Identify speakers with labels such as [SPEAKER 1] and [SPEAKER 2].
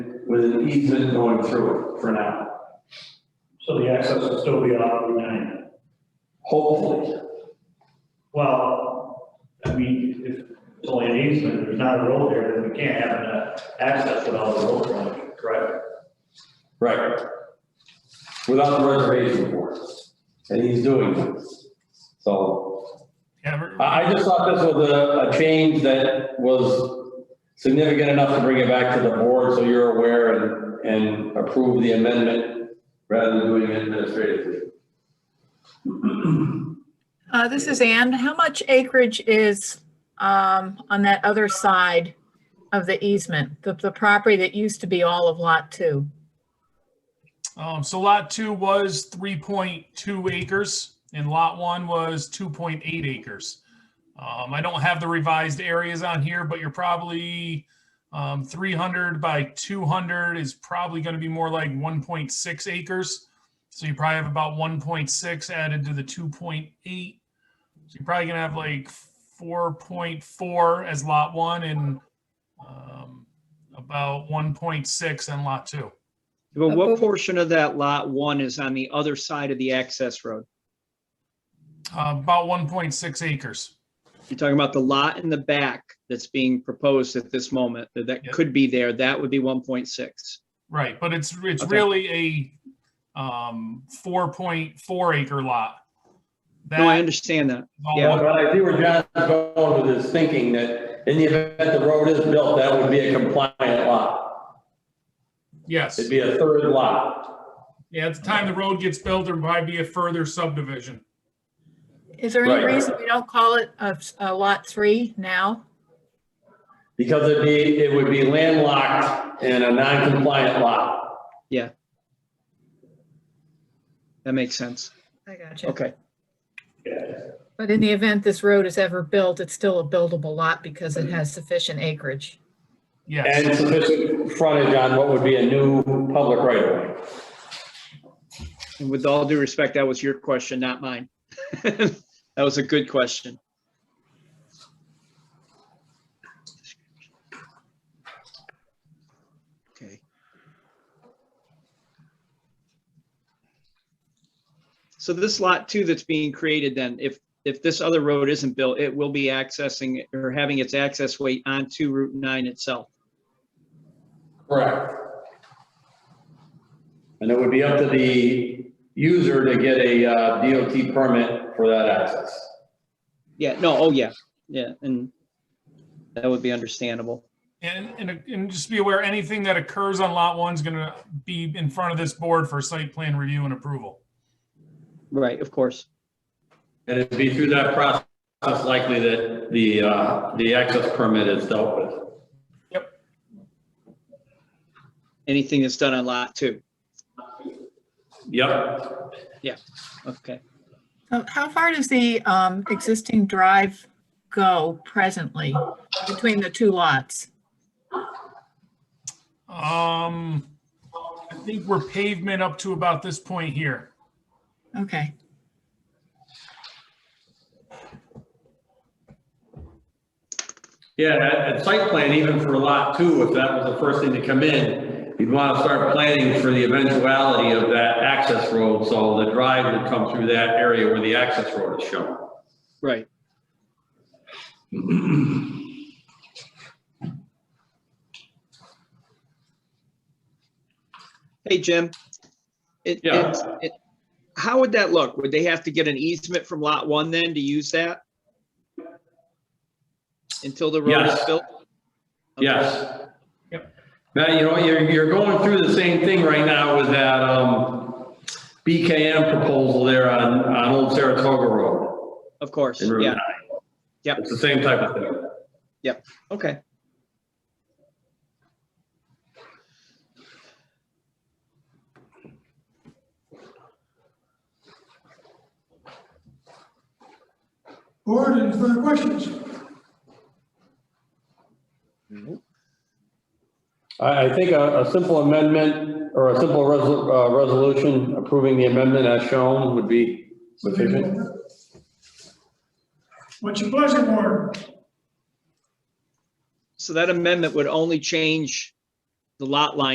[SPEAKER 1] with an easement going through it for now,
[SPEAKER 2] So the access will still be off Route 9.
[SPEAKER 1] hopefully.
[SPEAKER 2] Well, I mean, if it's only an easement, there's not a road there, then we can't have an access without a road frontage, correct?
[SPEAKER 1] Right. Without the reservation board, and he's doing it. So
[SPEAKER 3] Yeah, we're-
[SPEAKER 1] I, I just thought this was a, a change that was significant enough to bring it back to the board, so you're aware and, and approve the amendment rather than doing it administratively.
[SPEAKER 4] Uh, this is Ann. How much acreage is, um, on that other side of the easement? The, the property that used to be all of lot two?
[SPEAKER 3] um, so lot two was three point two acres and lot one was two point eight acres. Um, I don't have the revised areas on here, but you're probably, um, three hundred by two hundred is probably gonna be more like one point six acres. So you probably have about one point six added to the two point eight. So you're probably gonna have like four point four as lot one and, um, about one point six on lot two.
[SPEAKER 5] But
[SPEAKER 6] Uh,
[SPEAKER 5] what
[SPEAKER 6] but-
[SPEAKER 5] portion of that lot one is on the other side of the access road?
[SPEAKER 3] Uh, About 1.6 acres.
[SPEAKER 5] You're talking about the lot in the back that's being proposed at this moment, that- that
[SPEAKER 3] Yep.
[SPEAKER 5] could be there, that would be one point six.
[SPEAKER 3] Right, but it's, it's
[SPEAKER 5] Okay.
[SPEAKER 3] really a um 4.4 acre lot.
[SPEAKER 5] No, I
[SPEAKER 3] That is
[SPEAKER 5] understand that.
[SPEAKER 3] all
[SPEAKER 5] yeah.
[SPEAKER 3] one-
[SPEAKER 1] But I see where John's going with his thinking that in the event the road is built, that would be a compliant lot.
[SPEAKER 3] Yes,
[SPEAKER 1] It'd be a third lot.
[SPEAKER 3] yeah, at the time the road gets built, there might be a further subdivision.
[SPEAKER 4] Is there any
[SPEAKER 1] Right.
[SPEAKER 4] reason we don't call it a, a lot three now?
[SPEAKER 1] Because it'd be, it would be landlocked and a non-compliant lot.
[SPEAKER 5] That makes sense.
[SPEAKER 4] I got you.
[SPEAKER 5] Okay,
[SPEAKER 2] Yeah.
[SPEAKER 4] But in the event this road is ever built, it's still a buildable lot because it has sufficient acreage.
[SPEAKER 3] Yes,
[SPEAKER 1] And sufficient frontage on what would be a new public right of way.
[SPEAKER 5] and with all due respect, that was your question, not mine. That was a good question. Okay. So this lot two that's being created then, if, if this other road isn't built, it will be accessing or having its access way onto Route 9 itself.
[SPEAKER 1] Correct. And it would be up to the user to get a uh, DOT permit for that access.
[SPEAKER 5] Yeah, no, oh yeah, yeah, and that would be understandable.
[SPEAKER 3] and, and, and just be aware, anything that occurs on lot one is gonna be in front of this board for site plan review and approval.
[SPEAKER 5] Right, of course.
[SPEAKER 1] And it'd be through that process likely that the, uh, the access permit is dealt with.
[SPEAKER 5] Anything that's done on lot two.
[SPEAKER 1] Yep.
[SPEAKER 5] Okay.
[SPEAKER 4] Uh, How far does the, um, existing drive go presently between the two lots?
[SPEAKER 3] Um, I think we're pavement up to about this point here.
[SPEAKER 4] Okay,
[SPEAKER 1] Yeah, at, at site plan, even for lot two, if that was the first thing to come in, you'd want to start planning for the eventuality of that access road. So the drive would come through that area where the access road is shown.
[SPEAKER 5] Right. Hey, Jim. It,
[SPEAKER 1] Yeah.
[SPEAKER 5] it's- it, how would that look? Would they have to get an easement from lot one then to use that? Until the road is
[SPEAKER 1] Yes.
[SPEAKER 5] built? Okay.
[SPEAKER 1] Yes.
[SPEAKER 3] Yep.
[SPEAKER 1] Now, you know, you're, you're going through the same thing right now with that, um, BKM proposal there on, on Old Saratoga Road.
[SPEAKER 5] Of course,
[SPEAKER 1] in Route
[SPEAKER 5] yeah,
[SPEAKER 1] 9.
[SPEAKER 5] Yep.
[SPEAKER 1] It's the same type of thing.
[SPEAKER 5] okay.
[SPEAKER 7] Board, any further questions?
[SPEAKER 1] I, I think a, a simple amendment or a simple resol, uh, resolution approving the amendment as shown would be sufficient.
[SPEAKER 7] What's your pleasure, board?
[SPEAKER 5] So that amendment would only change the lot line